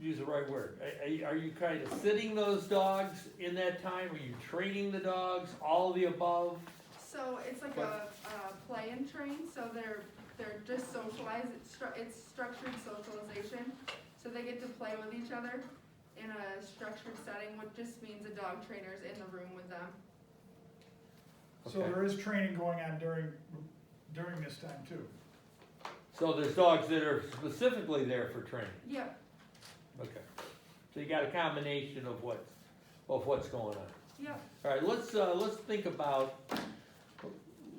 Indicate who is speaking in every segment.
Speaker 1: use the right word, are, are you- are you kind of sitting those dogs in that time, are you training the dogs, all of the above?
Speaker 2: So it's like a, uh play and train, so they're, they're just socialized, it's stru- it's structured socialization. So they get to play with each other in a structured setting, which just means a dog trainer's in the room with them.
Speaker 3: So there is training going on during, during this time too.
Speaker 1: So there's dogs that are specifically there for training,
Speaker 2: Yep,
Speaker 1: okay. So you got a combination of what's, of what's going on.
Speaker 2: yep,
Speaker 1: All right, let's, uh, let's think about,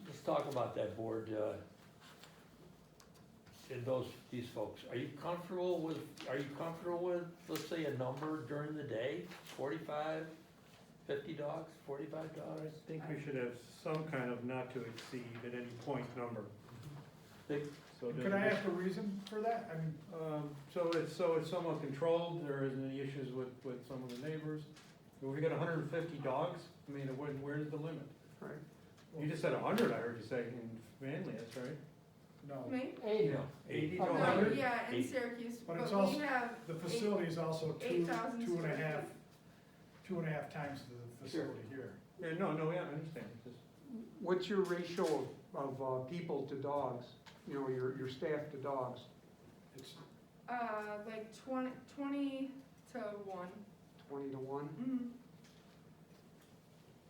Speaker 1: let's talk about that board, uh, and those, these folks. Are you comfortable with, are you comfortable with, let's say, a number during the day? Forty-five, fifty dogs, forty-five
Speaker 4: I
Speaker 1: dollars?
Speaker 4: think we should have some kind of not to exceed at any point number.
Speaker 1: Think-
Speaker 4: So it
Speaker 3: Could I
Speaker 4: doesn't-
Speaker 3: ask a reason for that? I mean,
Speaker 4: Um, so it's, so it's somewhat controlled, there isn't any issues with, with some of the neighbors. If we got hundred and fifty dogs, I mean, where, where's the limit?
Speaker 3: Right.
Speaker 4: You just said hundred, I heard you say, in Manly, that's right.
Speaker 3: no,
Speaker 2: me?
Speaker 1: Eighty.
Speaker 4: Eighty
Speaker 2: Oh, No,
Speaker 4: dollars.
Speaker 2: yeah, in
Speaker 1: Eight.
Speaker 2: Syracuse,
Speaker 3: But it's
Speaker 2: but we
Speaker 3: also-
Speaker 2: have,
Speaker 3: the facility is also two,
Speaker 2: Eight thousand
Speaker 3: two and a
Speaker 2: square
Speaker 3: half,
Speaker 2: feet.
Speaker 3: two and a half times the facility here.
Speaker 4: Yeah, no, no, yeah, I understand, It's just-
Speaker 5: What's your ratio of, of uh, people to dogs, you know, your, your staff to dogs,
Speaker 3: It's,
Speaker 2: uh, like twenty, twenty to one.
Speaker 5: twenty to one?
Speaker 2: Mhm.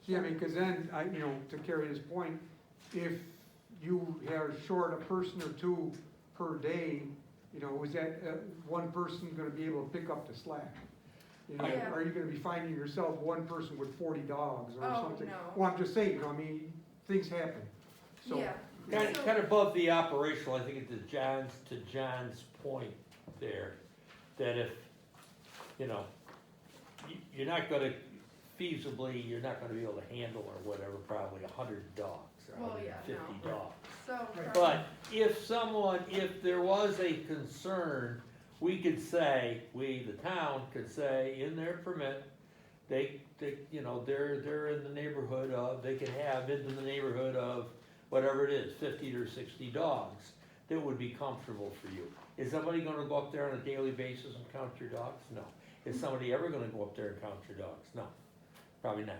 Speaker 5: Yeah, I mean, cause then, I, you know, to carry his point, if you have short a person or two per day, you know, is that, uh, one person gonna be able to pick up the slack? You know,
Speaker 2: Yeah.
Speaker 5: are you gonna be finding yourself one person with forty dogs or
Speaker 2: Oh,
Speaker 5: something?
Speaker 2: no.
Speaker 5: Well, I'm just saying, you know, I mean, things happen, so.
Speaker 2: Yeah,
Speaker 1: Kind of,
Speaker 2: So-
Speaker 1: kind of above the operational, I think it's to John's, to John's point there, that if, you know, you, you're not gonna, feasibly, you're not gonna be able to handle or whatever, probably a hundred dogs, or
Speaker 2: Well,
Speaker 1: hundred
Speaker 2: yeah,
Speaker 1: and fifty
Speaker 2: no.
Speaker 1: dogs.
Speaker 2: so.
Speaker 3: Right.
Speaker 1: But if someone, if there was a concern, we could say, we, the town, could say in their permit, they, they, you know, they're, they're in the neighborhood of, they could have into the neighborhood of whatever it is, fifty or sixty dogs, that would be comfortable for you. Is somebody gonna go up there on a daily basis and count your dogs? No. Is somebody ever gonna go up there and count your dogs? No, probably not.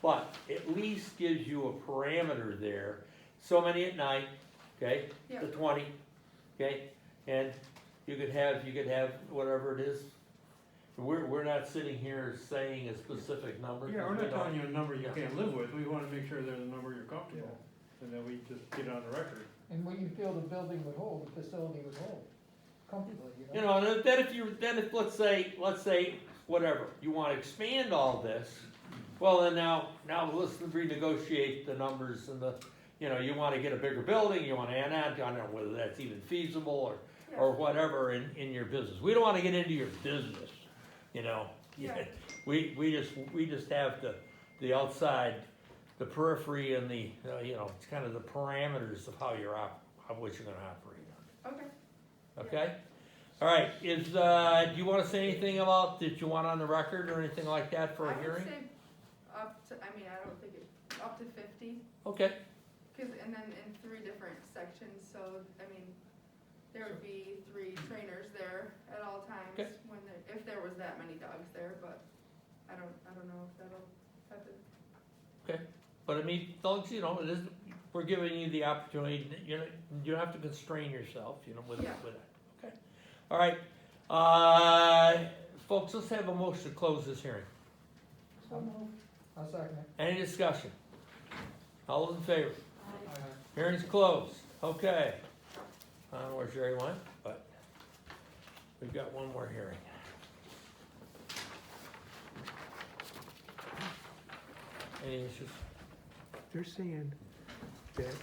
Speaker 1: But at least gives you a parameter there, so many at night, okay?
Speaker 2: Yeah.
Speaker 1: The twenty, okay? And you could have, you could have whatever it is. We're, we're not sitting here saying a specific number.
Speaker 4: yeah, we're
Speaker 1: we
Speaker 4: not
Speaker 1: don't-
Speaker 4: telling you a number you
Speaker 1: Yeah.
Speaker 4: can't live with, we wanna make sure there's a number you're comfortable, and then we just get it on the record.
Speaker 6: And what you feel the building would hold, the facility would hold comfortably, you know?
Speaker 1: You know, and then if you, then if, let's say, let's say, whatever, you wanna expand all this, well, then now, now let's renegotiate the numbers and the, you know, you wanna get a bigger building, you wanna add, on, I don't know whether that's even feasible or, or whatever in, in your business. We don't wanna get into your business, you know?
Speaker 2: Yeah.
Speaker 1: We, we just, we just have the, the outside, the periphery and the, uh, you know, it's kind of the parameters of how you're op, of what you're gonna operate on.
Speaker 2: Okay,
Speaker 1: Okay? All right, is, uh, do you wanna say anything about, that you want on the record or anything like that for
Speaker 2: I
Speaker 1: a
Speaker 2: would
Speaker 1: hearing?
Speaker 2: say up to, I mean, I don't think it, up to fifty.
Speaker 1: Okay,
Speaker 2: Cause, and then in three different sections, so, I mean, there would be three trainers there at all times
Speaker 1: Okay.
Speaker 2: when there, if there was that many dogs there, but I don't, I don't know if that'll happen.
Speaker 1: but I mean, dogs, you know, it is, we're giving you the opportunity, you know, you don't have to constrain yourself, you know, with, with
Speaker 2: Yeah.
Speaker 1: that, okay? All right, uh, folks, let's have a motion to close this hearing.
Speaker 6: So moved. I'll second it.
Speaker 1: Any discussion? All those in favor? Hearing's closed, okay. I don't know where Jerry went, but we've got one more hearing. Any issues?
Speaker 5: They're saying that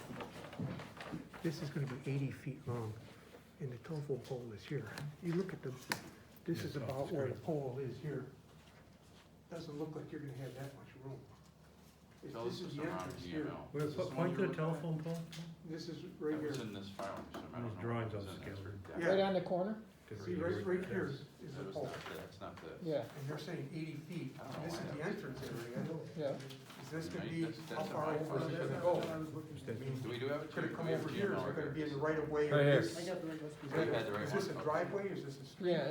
Speaker 5: this is gonna be eighty feet long, and the telephone pole is here. You look at the, this is about where the pole is here. Doesn't look like you're gonna have that much room. If
Speaker 7: Tell us
Speaker 5: this is
Speaker 7: what's
Speaker 5: the
Speaker 7: around
Speaker 5: entrance
Speaker 7: here
Speaker 5: here,
Speaker 7: now.
Speaker 4: Where,
Speaker 7: Is this the one
Speaker 4: point
Speaker 7: you
Speaker 4: to
Speaker 7: were
Speaker 4: the
Speaker 7: looking at?
Speaker 4: telephone pole?
Speaker 5: this is right
Speaker 7: That
Speaker 5: here.
Speaker 7: was in this file, so I don't
Speaker 4: Those
Speaker 7: know
Speaker 4: drawings
Speaker 7: what was
Speaker 4: on
Speaker 7: in
Speaker 4: the
Speaker 7: there.
Speaker 5: Yeah.
Speaker 6: Right on the corner?
Speaker 5: See, right, right here is
Speaker 7: That
Speaker 5: the
Speaker 7: was
Speaker 5: pole,
Speaker 7: not, that's not the.
Speaker 6: Yeah,
Speaker 5: and they're saying eighty feet.
Speaker 7: I don't know
Speaker 5: This is
Speaker 7: why that
Speaker 5: the
Speaker 7: was-
Speaker 5: entrance area.
Speaker 6: yeah.
Speaker 5: Is this gonna
Speaker 7: Right,
Speaker 5: be,
Speaker 7: that's-
Speaker 5: how
Speaker 7: that's
Speaker 5: far
Speaker 7: what I
Speaker 5: over is
Speaker 7: thought.
Speaker 5: it gonna go? I mean,
Speaker 7: Do we do have it?
Speaker 5: Could it come over here, is it gonna be in the
Speaker 7: Is
Speaker 5: right of way?
Speaker 1: Right here.
Speaker 5: Is
Speaker 6: I got the right one.
Speaker 7: I got the right
Speaker 5: this a
Speaker 7: one.
Speaker 5: driveway, is this a street?
Speaker 6: Yeah,